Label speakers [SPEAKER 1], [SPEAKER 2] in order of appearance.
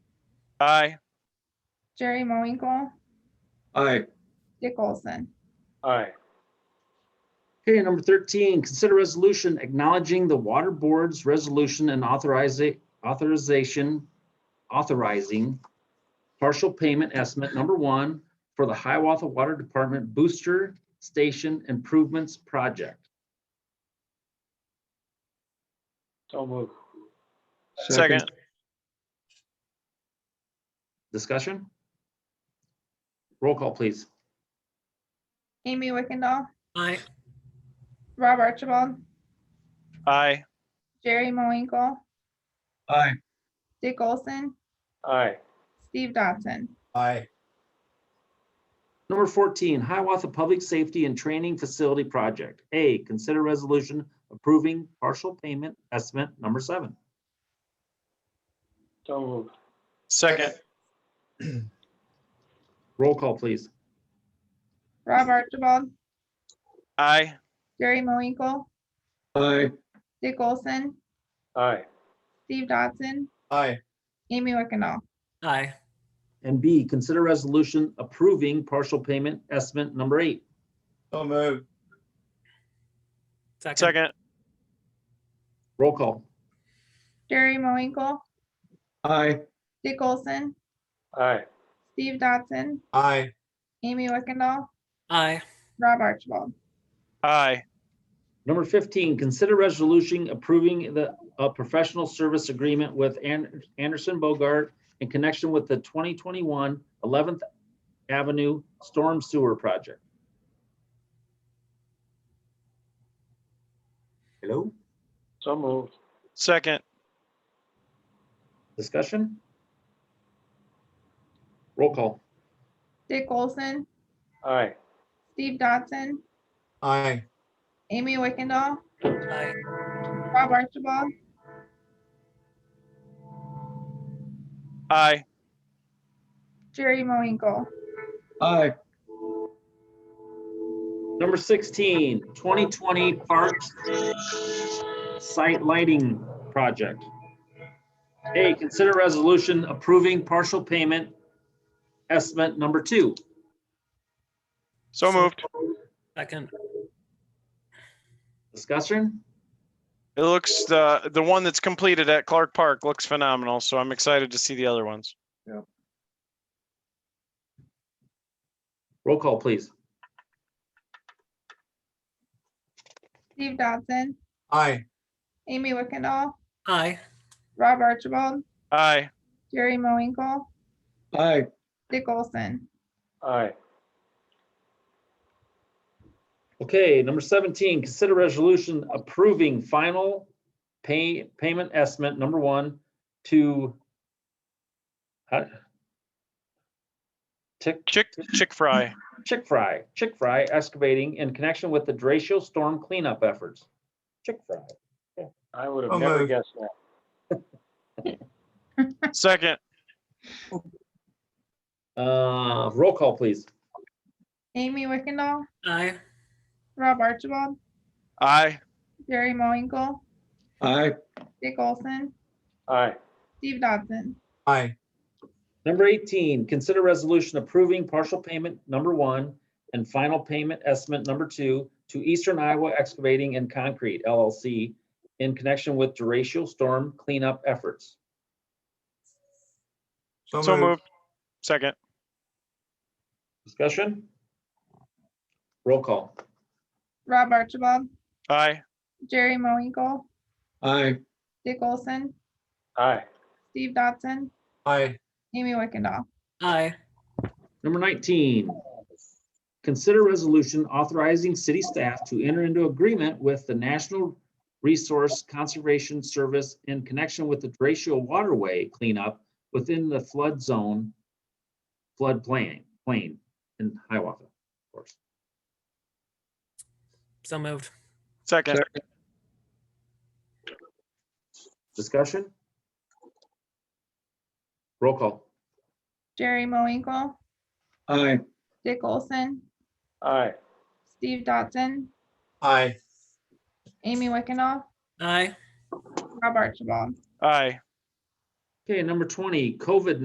[SPEAKER 1] Aye.
[SPEAKER 2] Jerry Moinkle,
[SPEAKER 3] Aye.
[SPEAKER 2] Dick Olson.
[SPEAKER 4] Aye.
[SPEAKER 3] Okay, number thirteen, consider resolution acknowledging the water board's resolution and authorizing, authorization, authorizing partial payment estimate number one for the Hiawatha Water Department Booster Station Improvements Project.
[SPEAKER 4] So move.
[SPEAKER 1] Second.
[SPEAKER 3] Discussion? Roll call, please.
[SPEAKER 2] Amy Wickendall,
[SPEAKER 5] aye,
[SPEAKER 2] Rob Archibald,
[SPEAKER 1] Aye.
[SPEAKER 2] Jerry Moinkle,
[SPEAKER 3] Aye.
[SPEAKER 2] Dick Olson,
[SPEAKER 4] Aye.
[SPEAKER 2] Steve Dodson.
[SPEAKER 6] aye,
[SPEAKER 3] Number 14, Hiawatha Public Safety and Training Facility Project. A, consider resolution approving partial payment estimate number seven.
[SPEAKER 4] So move.
[SPEAKER 1] Second.
[SPEAKER 3] Roll call, please.
[SPEAKER 2] Rob Archibald,
[SPEAKER 1] Aye.
[SPEAKER 2] Jerry Moinkle,
[SPEAKER 4] Aye.
[SPEAKER 2] Dick Olson,
[SPEAKER 4] Aye.
[SPEAKER 2] Steve Dodson,
[SPEAKER 6] aye,
[SPEAKER 2] Amy Wickendall.
[SPEAKER 5] aye,
[SPEAKER 3] And B, consider resolution approving partial payment estimate number eight.
[SPEAKER 6] so move,
[SPEAKER 5] second,
[SPEAKER 1] Second.
[SPEAKER 3] Roll call.
[SPEAKER 2] Jerry Moinkle,
[SPEAKER 4] Aye.
[SPEAKER 2] Dick Olson,
[SPEAKER 4] Aye.
[SPEAKER 2] Steve Dodson,
[SPEAKER 6] aye,
[SPEAKER 2] Amy Wickendall,
[SPEAKER 5] aye,
[SPEAKER 2] Rob Archibald.
[SPEAKER 1] Aye.
[SPEAKER 3] Number 15, consider resolution approving the, a professional service agreement with An- Anderson Bogart in connection with the 2021 11th Avenue Storm Sewer Project. Hello,
[SPEAKER 4] So move.
[SPEAKER 1] Second.
[SPEAKER 3] discussion? Roll call.
[SPEAKER 2] Dick Olson,
[SPEAKER 4] Aye.
[SPEAKER 2] Steve Dodson,
[SPEAKER 6] aye,
[SPEAKER 2] Amy Wickendall,
[SPEAKER 5] aye,
[SPEAKER 2] Rob Archibald,
[SPEAKER 1] Aye.
[SPEAKER 2] Jerry Moinkle.
[SPEAKER 4] Aye.
[SPEAKER 3] Number 16, 2020 Parks Site Lighting Project. A, consider resolution approving partial payment estimate number two.
[SPEAKER 1] So moved.
[SPEAKER 5] second,
[SPEAKER 3] Discussion?
[SPEAKER 1] It looks, the, the one that's completed at Clark Park looks phenomenal, so I'm excited to see the other ones.
[SPEAKER 3] Roll call, please.
[SPEAKER 2] Steve Dodson,
[SPEAKER 6] aye,
[SPEAKER 2] Amy Wickendall,
[SPEAKER 5] aye,
[SPEAKER 2] Rob Archibald,
[SPEAKER 1] Aye.
[SPEAKER 2] Jerry Moinkle,
[SPEAKER 4] Aye.
[SPEAKER 2] Dick Olson.
[SPEAKER 4] Aye.
[SPEAKER 3] Okay, number 17, consider resolution approving final pay, payment estimate number one to how- Tick,
[SPEAKER 1] Chick, chick fry.
[SPEAKER 3] Chick Fry, Chick Fry excavating in connection with the Dratio storm cleanup efforts. Chick Fry.
[SPEAKER 4] I would
[SPEAKER 6] So
[SPEAKER 4] have never
[SPEAKER 6] moved.
[SPEAKER 4] guessed that.
[SPEAKER 1] Second.
[SPEAKER 3] Uh, roll call, please.
[SPEAKER 2] Amy Wickendall,
[SPEAKER 5] aye,
[SPEAKER 2] Rob Archibald,
[SPEAKER 1] Aye.
[SPEAKER 2] Jerry Moinkle,
[SPEAKER 4] Aye.
[SPEAKER 2] Dick Olson,
[SPEAKER 4] Aye.
[SPEAKER 2] Steve Dodson,
[SPEAKER 6] aye,
[SPEAKER 3] Number eighteen, consider resolution approving partial payment number one and final payment estimate number two to Eastern Iowa Excavating and Concrete LLC in connection with Dratio storm cleanup efforts.
[SPEAKER 1] So moved. Second.
[SPEAKER 3] Discussion? Roll call.
[SPEAKER 2] Rob Archibald,
[SPEAKER 1] Aye.
[SPEAKER 2] Jerry Moinkle,
[SPEAKER 4] Aye.
[SPEAKER 2] Dick Olson,
[SPEAKER 4] Aye.
[SPEAKER 2] Steve Dodson,
[SPEAKER 6] aye,
[SPEAKER 2] Amy Wickendall.
[SPEAKER 5] aye,
[SPEAKER 3] Number 19, consider resolution authorizing city staff to enter into agreement with the National Resource Conservation Service in connection with the Derecho Waterway cleanup within the flood zone, flood plain, plain in Hiawatha, of course.
[SPEAKER 5] so moved,
[SPEAKER 1] Second.
[SPEAKER 3] Discussion? Roll call.
[SPEAKER 2] Jerry Moinkle,
[SPEAKER 4] Aye.
[SPEAKER 2] Dick Olson,
[SPEAKER 4] Aye.
[SPEAKER 2] Steve Dodson,
[SPEAKER 6] aye,
[SPEAKER 2] Amy Wickendall,
[SPEAKER 5] aye.
[SPEAKER 2] Rob Archibald.
[SPEAKER 1] Aye.
[SPEAKER 3] Okay, number 20, COVID